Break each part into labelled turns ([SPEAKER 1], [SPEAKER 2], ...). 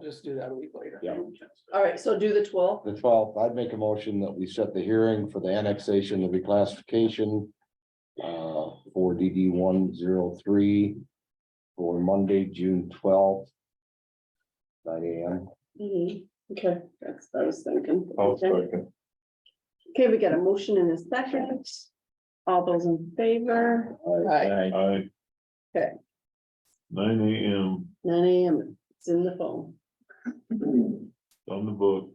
[SPEAKER 1] just do that a week later.
[SPEAKER 2] Yeah.
[SPEAKER 3] All right, so do the twelfth.
[SPEAKER 2] The twelfth, I'd make a motion that we set the hearing for the annexation of reclassification. Uh, for DD one zero three. For Monday, June twelfth. Nine AM.
[SPEAKER 3] Mm-hmm, Okay, that's, what I was thinking.
[SPEAKER 2] Oh,
[SPEAKER 4] I'll
[SPEAKER 3] Okay.
[SPEAKER 4] second.
[SPEAKER 3] Okay, we got a motion and a second. All those in favor,
[SPEAKER 1] Right.
[SPEAKER 4] Aye.
[SPEAKER 3] Okay.
[SPEAKER 4] Nine AM
[SPEAKER 3] nine AM, it's in the phone.
[SPEAKER 4] on the book.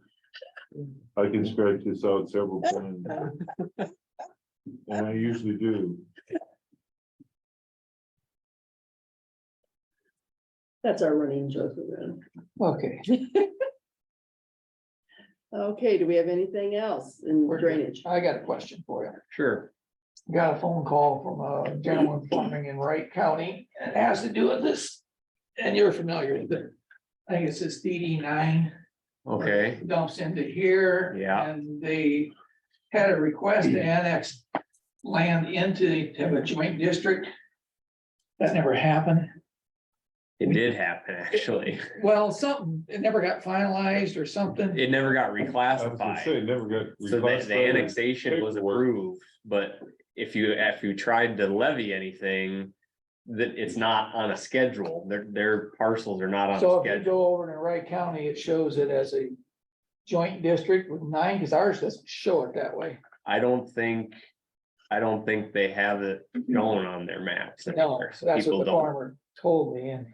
[SPEAKER 4] I can scratch this out several times. And I usually do.
[SPEAKER 3] That's our running joke around.
[SPEAKER 1] Okay,
[SPEAKER 3] Okay, do we have anything else in
[SPEAKER 1] We're good.
[SPEAKER 3] drainage?
[SPEAKER 1] I got a question for you.
[SPEAKER 5] Sure.
[SPEAKER 1] Got a phone call from a gentleman farming in Wright County and it has to do with this. And you're familiar with it. I think it's this DD nine
[SPEAKER 5] Okay,
[SPEAKER 1] dumps into here.
[SPEAKER 5] Yeah.
[SPEAKER 1] And they had a request to annex land into, to have a joint district. That never happened.
[SPEAKER 5] it did happen, actually.
[SPEAKER 1] Well, something, it never got finalized or something.
[SPEAKER 5] It never got
[SPEAKER 4] I was gonna say,
[SPEAKER 5] reclassified.
[SPEAKER 4] never got.
[SPEAKER 5] So the, the
[SPEAKER 4] reclassified.
[SPEAKER 5] annexation was
[SPEAKER 4] paperwork.
[SPEAKER 5] approved, but if you, if you tried to levy anything. That it's not on a schedule, their, their parcels are not on
[SPEAKER 1] So
[SPEAKER 5] a
[SPEAKER 1] if you
[SPEAKER 5] schedule.
[SPEAKER 1] go over to Wright County, it shows it as a joint district with nine, because ours doesn't show it that way.
[SPEAKER 5] I don't think, I don't think they have it shown on their maps.
[SPEAKER 1] No,
[SPEAKER 5] anywhere, so
[SPEAKER 1] so that's
[SPEAKER 5] people
[SPEAKER 1] what the
[SPEAKER 5] don't-
[SPEAKER 1] farmer told me and.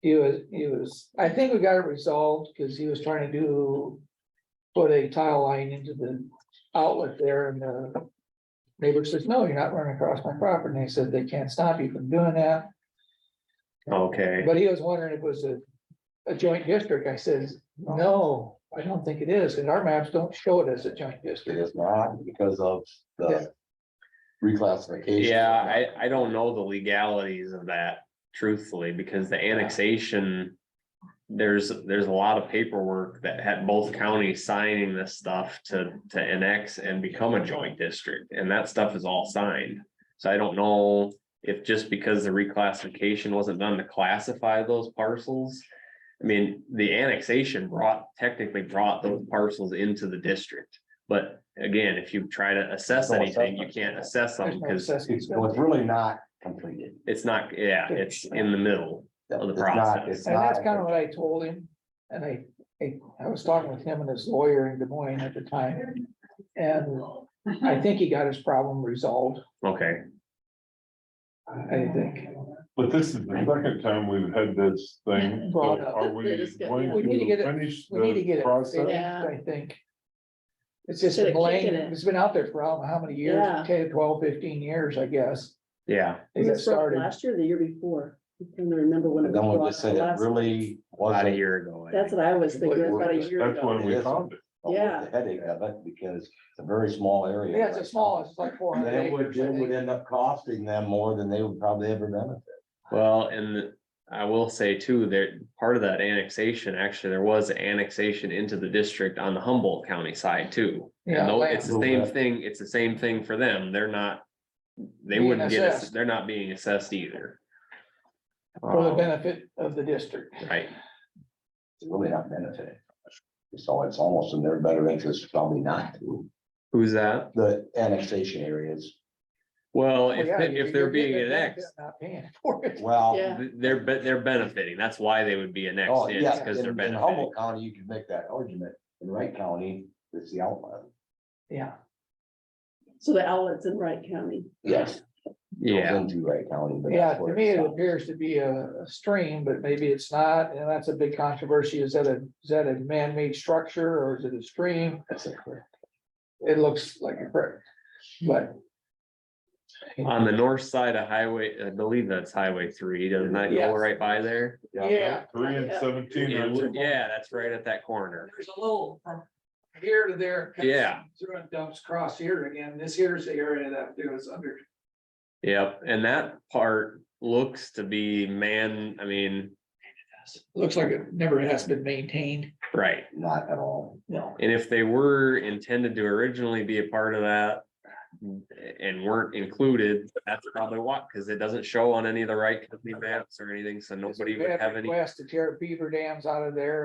[SPEAKER 1] He was, he was, I think we got it resolved because he was trying to do. Put a tile line into the outlet there and the. Neighbor says, no, you're not running across my property. And they said they can't stop you from doing that.
[SPEAKER 5] Okay,
[SPEAKER 1] But he was wondering if it was a, a joint district. I says, no, I don't think it is, and our maps don't show it as a joint
[SPEAKER 2] It
[SPEAKER 1] district.
[SPEAKER 2] is not because of
[SPEAKER 1] Yeah.
[SPEAKER 2] the reclassification.
[SPEAKER 5] yeah, I, I don't know the legalities of that truthfully, because the annexation. There's, there's a lot of paperwork that had both counties signing this stuff to, to annex and become a joint district, and that stuff is all signed. So I don't know if just because the reclassification wasn't done to classify those parcels. I mean, the annexation brought, technically brought those parcels into the district. But again, if you try to assess
[SPEAKER 2] No
[SPEAKER 5] anything, you
[SPEAKER 2] assessment.
[SPEAKER 5] can't assess
[SPEAKER 1] There's
[SPEAKER 5] something
[SPEAKER 1] no
[SPEAKER 5] because
[SPEAKER 1] assessment.
[SPEAKER 2] It's, well, it's really not completed.
[SPEAKER 5] it's not, yeah, it's in the middle. Of the
[SPEAKER 2] It's not-
[SPEAKER 5] process.
[SPEAKER 2] it's
[SPEAKER 1] And that's
[SPEAKER 2] not-
[SPEAKER 1] kind of what I told him, and I, I, I was talking with him and his lawyer in Des Moines at the time. And I think he got his problem resolved,
[SPEAKER 5] Okay,
[SPEAKER 1] I think.
[SPEAKER 4] But this is the second time we've had this thing. So
[SPEAKER 1] Brought up.
[SPEAKER 4] Are we
[SPEAKER 3] They just got-
[SPEAKER 4] going
[SPEAKER 1] We need to get
[SPEAKER 4] to
[SPEAKER 1] it-
[SPEAKER 4] finish
[SPEAKER 1] We need to
[SPEAKER 4] the
[SPEAKER 1] get it
[SPEAKER 4] process?
[SPEAKER 1] fixed,
[SPEAKER 3] Yeah.
[SPEAKER 1] I think. It's just
[SPEAKER 3] Should've
[SPEAKER 1] been laying,
[SPEAKER 3] taken it.
[SPEAKER 1] it's been out there for I don't know how many years,
[SPEAKER 3] Yeah.
[SPEAKER 1] 10, 12, 15 years, I guess.
[SPEAKER 5] yeah,
[SPEAKER 1] They got
[SPEAKER 3] This was
[SPEAKER 1] started.
[SPEAKER 3] Last year, or the year before, I can't remember when. it
[SPEAKER 2] But
[SPEAKER 3] was
[SPEAKER 2] Then we
[SPEAKER 3] brought
[SPEAKER 2] just
[SPEAKER 3] up
[SPEAKER 2] said it
[SPEAKER 3] last-
[SPEAKER 2] really
[SPEAKER 5] about a
[SPEAKER 2] wasn't.
[SPEAKER 5] year ago. I
[SPEAKER 3] That's
[SPEAKER 5] think.
[SPEAKER 3] what I was thinking, it was about a year ago.
[SPEAKER 4] That's when we
[SPEAKER 2] Yes.
[SPEAKER 4] found it.
[SPEAKER 3] Yeah.
[SPEAKER 2] The headache of it because it's a very small area.
[SPEAKER 1] Yeah, it's the smallest, it's like four
[SPEAKER 2] And
[SPEAKER 1] hundred
[SPEAKER 2] It would,
[SPEAKER 1] acres. I
[SPEAKER 2] it would
[SPEAKER 1] think.
[SPEAKER 2] end up costing them more than they would probably ever benefit.
[SPEAKER 5] Well, and I will say too, there, part of that annexation, actually, there was annexation into the district on the Humboldt County side too.
[SPEAKER 1] Yeah,
[SPEAKER 5] And though it's the same
[SPEAKER 2] land.
[SPEAKER 5] thing, it's the same thing for them. They're not, they
[SPEAKER 1] Being
[SPEAKER 5] wouldn't get, ass-
[SPEAKER 1] assessed.
[SPEAKER 5] they're not being assessed either,
[SPEAKER 1] For the
[SPEAKER 2] Um,
[SPEAKER 1] benefit of the district.
[SPEAKER 5] right?
[SPEAKER 2] It's really not benefiting. So it's almost in their better interest probably not to.
[SPEAKER 5] Who's that?
[SPEAKER 2] The annexation areas,
[SPEAKER 5] Well,
[SPEAKER 1] Well,
[SPEAKER 5] if,
[SPEAKER 1] Oh, yeah,
[SPEAKER 5] they- if
[SPEAKER 1] you-
[SPEAKER 5] they're
[SPEAKER 1] you're
[SPEAKER 5] being
[SPEAKER 1] getting a benefit,
[SPEAKER 5] annexed,
[SPEAKER 1] Not paying for it.
[SPEAKER 2] well.
[SPEAKER 3] Yeah.
[SPEAKER 5] th- they're, be- they're benefiting. That's why they would be
[SPEAKER 2] Oh,
[SPEAKER 5] annexed in,
[SPEAKER 2] yeah,
[SPEAKER 5] because
[SPEAKER 2] in
[SPEAKER 5] they're
[SPEAKER 2] in
[SPEAKER 5] benefiting.
[SPEAKER 2] Humboldt County, you could make that argument. In Wright County, it's the outline.
[SPEAKER 1] Yeah,
[SPEAKER 3] So the outlets in Wright County.
[SPEAKER 2] Yes. goes
[SPEAKER 5] Yeah.
[SPEAKER 2] Into Wright County. but
[SPEAKER 1] yeah,
[SPEAKER 2] that's
[SPEAKER 1] to
[SPEAKER 2] where
[SPEAKER 1] me, it
[SPEAKER 2] stops.
[SPEAKER 1] appears to be a a stream, but maybe it's not, and that's a big controversy, is that a, is that a man-made structure, or is it a stream?
[SPEAKER 2] That's it.
[SPEAKER 1] It looks like a creek, but.
[SPEAKER 5] On the north side of highway, I believe that's highway three, doesn't that go
[SPEAKER 1] Yes.
[SPEAKER 5] right by there?
[SPEAKER 1] Yeah.
[SPEAKER 4] Three and seventeen.
[SPEAKER 5] It
[SPEAKER 4] that's
[SPEAKER 5] would-
[SPEAKER 4] it.
[SPEAKER 5] Yeah, that's right at that corner.
[SPEAKER 1] There's a little from here to there. cuts
[SPEAKER 5] Yeah.
[SPEAKER 1] Through and dumps across here again, this here's the area that it was under.
[SPEAKER 5] Yep, and that part looks to be man, I mean,
[SPEAKER 1] Looks like it never has been maintained.
[SPEAKER 5] right.
[SPEAKER 2] Not at all.
[SPEAKER 1] No.
[SPEAKER 5] And if they were intended to originally be a part of that, and weren't included, that's probably what, because it doesn't show on any of the right company maps or anything, so nobody would have any.
[SPEAKER 1] West to tear beaver dams out of there